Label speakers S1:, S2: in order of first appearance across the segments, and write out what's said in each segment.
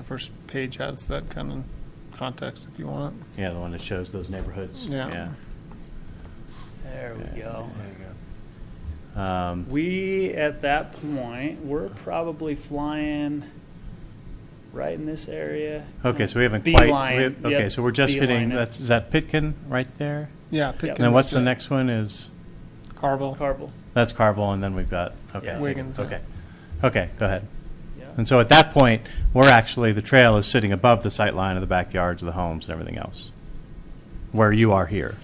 S1: The first page has that kind of context if you want it.
S2: Yeah, the one that shows those neighborhoods.
S1: Yeah.
S3: There we go.
S2: Yeah. Um,
S3: We, at that point, we're probably flying right in this area.
S2: Okay, so we haven't quite. we
S3: Beeline,
S2: have- Okay,
S3: yep,
S2: so we're just hitting,
S3: beeline it.
S2: that's, is that Pitkin right there?
S1: Yeah.
S2: And then what's the next one is,
S1: Carvel.
S3: Carvel,
S2: that's Carville, and then we've got, okay.
S3: Yeah.
S1: Wiggins, yeah.
S2: Okay, okay, go ahead.
S3: yeah.
S2: And so at that point, we're actually, the trail is sitting above the sight line of the backyards of the homes and everything else, where you are here.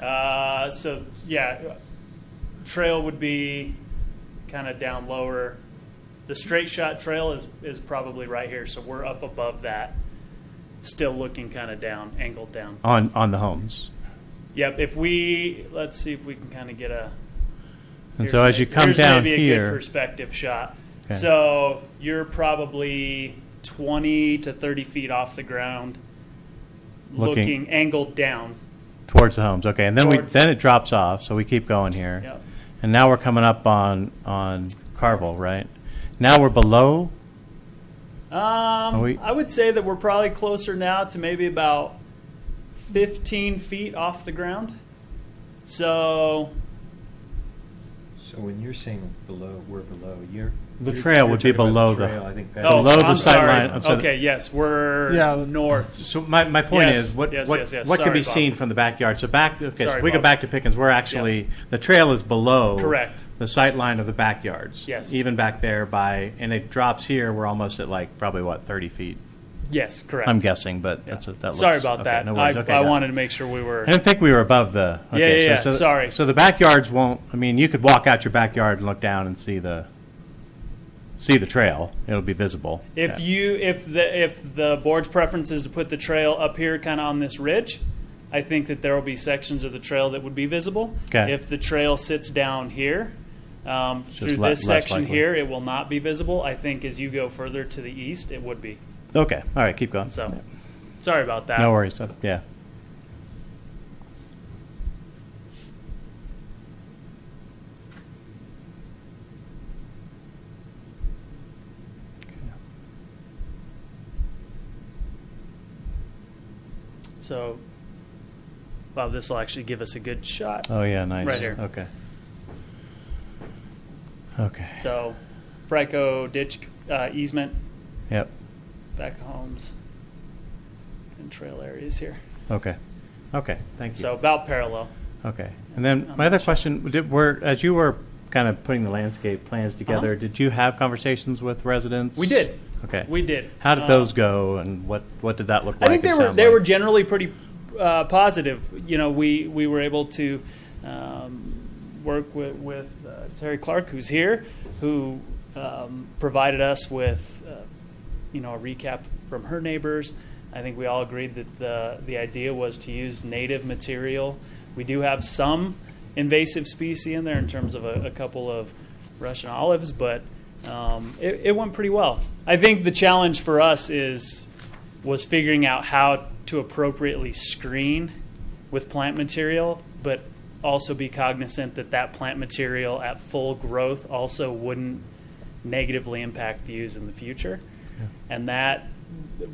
S3: Uh, so, yeah, trail would be kind of down lower. The straight shot trail is, is probably right here, so we're up above that, still looking kind of down, angled down.
S2: On, on the homes.
S3: Yep, if we, let's see if we can kind of get a.
S2: And so as
S3: here's
S2: you
S3: may-
S2: come
S3: here's
S2: down
S3: maybe a good
S2: here,
S3: perspective shot.
S2: Okay.
S3: So you're probably 20 to 30 feet off the ground,
S2: Looking-
S3: looking, angled down.
S2: towards the homes, okay, and then we,
S3: Towards-
S2: then it drops off, so we keep going here.
S3: Yep.
S2: And now we're coming up on, on Carville, right? Now we're below,
S3: Um,
S2: we-
S3: I would say that we're probably closer now to maybe about 15 feet off the ground. So
S4: So when you're saying below, we're below, you're.
S2: The
S4: you're-
S2: trail
S4: you're
S2: would be
S4: talking about
S2: below the-
S4: trail, I think.
S3: oh,
S2: Below the
S3: I'm
S2: sight
S3: sorry.
S2: line, I'm sorry.
S3: Okay, yes, we're
S1: Yeah.
S3: north.
S2: So my, my point
S3: Yes,
S2: is, what,
S3: yes,
S2: what,
S3: yes, yes.
S2: what can
S3: Sorry,
S2: be seen
S3: Bob.
S2: from the backyard? So back, okay, so
S3: Sorry,
S2: if we go
S3: Bob.
S2: back to Pickens, we're actually, the trail is below.
S3: Correct.
S2: The sight line of the backyards.
S3: Yes.
S2: Even back there by, and it drops here, we're almost at like, probably what, 30 feet?
S3: Yes, correct.
S2: I'm guessing, but
S3: Yeah.
S2: that's, a- that looks.
S3: Sorry about
S2: okay,
S3: that.
S2: no worries.
S3: I,
S2: Okay,
S3: I
S2: got it.
S3: wanted to make sure we were.
S2: I didn't think we were above the.
S3: Yeah,
S2: okay,
S3: yeah, yeah,
S2: so- so-
S3: sorry.
S2: So the backyards won't, I mean, you could walk out your backyard and look down and see the, see the trail. It'll be visible.
S3: If
S2: Yeah.
S3: you if the if the board's preference is to put the trail up here, kind of on this ridge, I think that there will be sections of the trail that would be visible.
S2: Okay.
S3: If the trail sits down here, um, through
S2: le-
S3: this
S2: less
S3: section
S2: likely.
S3: here, it will not be visible. I think as you go further to the east, it would be.
S2: Okay, all right, keep going.
S3: So, sorry about that.
S2: No worries, uh, yeah.
S3: So, Bob, this will actually give us a good shot.
S2: Oh, yeah, nice.
S3: Right here.
S2: Okay. Okay,
S3: So, Franco ditch uh, easement,
S2: yep,
S3: back homes, and trail areas here.
S2: okay, okay, thank
S3: So
S2: you.
S3: about parallel.
S2: Okay, and then my other question, did, were, as you were kind of putting the landscape plans together,
S3: Uh-huh.
S2: did you have conversations with residents?
S3: We did.
S2: Okay.
S3: We did.
S2: How did
S3: Uh,
S2: those go, and what, what did that look
S3: I
S2: like?
S3: think they
S2: and
S3: were
S2: sound
S3: they
S2: like?
S3: were generally pretty uh, positive. You know, we we were able to um, work with, with uh, Terry Clark, who's here, who um, provided us with uh, you know a recap from her neighbors. I think we all agreed that the the idea was to use native material. We do have some invasive species in there in terms of a, a couple of Russian olives, but um, it, it went pretty well. I think the challenge for us is was figuring out how to appropriately screen with plant material, but also be cognizant that that plant material at full growth also wouldn't negatively impact views in the future. And that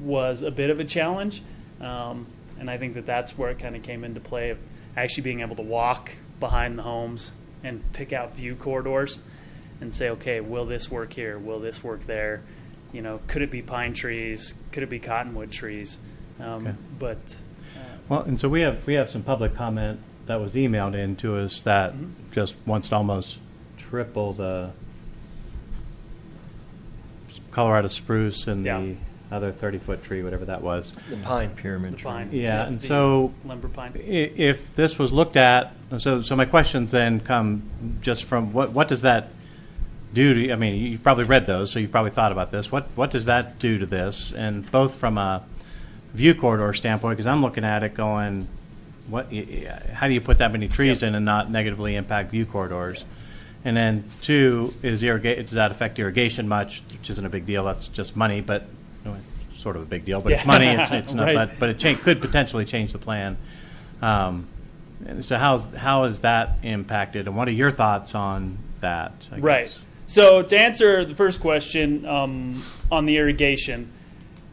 S3: was a bit of a challenge. Um, and I think that that's where it kind of came into play of actually being able to walk behind the homes and pick out view corridors and say, okay, will this work here? Will this work there? You know, could it be pine trees? Could it be cottonwood trees? Um,
S2: Okay.
S3: But uh,
S2: Well, and so we have, we have some public comment that was emailed in to us that
S3: Mm-hmm.
S2: just wants to almost triple the Colorado spruce and the other 30-foot tree, whatever that was.
S4: The pine pyramid.
S3: the pine.
S2: Yeah, and
S3: the
S2: so-
S3: Lumber
S2: I-
S3: pine.
S2: If this was looked at, so, so my questions then come just from, what, what does that do to, I mean, you've probably read those, so you've probably thought about this. What, what does that do to this? And both from a view corridor standpoint, because I'm looking at it going, what, y- y- how do you put that many trees in and not negatively impact view corridors? And then two, is irrigate, does that affect irrigation much, which isn't a big deal, that's just money, but, no, it's sort of a big deal, but it's
S3: Yeah.
S2: money, it's, it's not,
S3: Right.
S2: but, but it cha- could potentially change the plan. Um, and so how's, how is that impacted, and what are your thoughts on that? I
S3: Right.
S2: guess?
S3: So to answer the first question um, on the irrigation,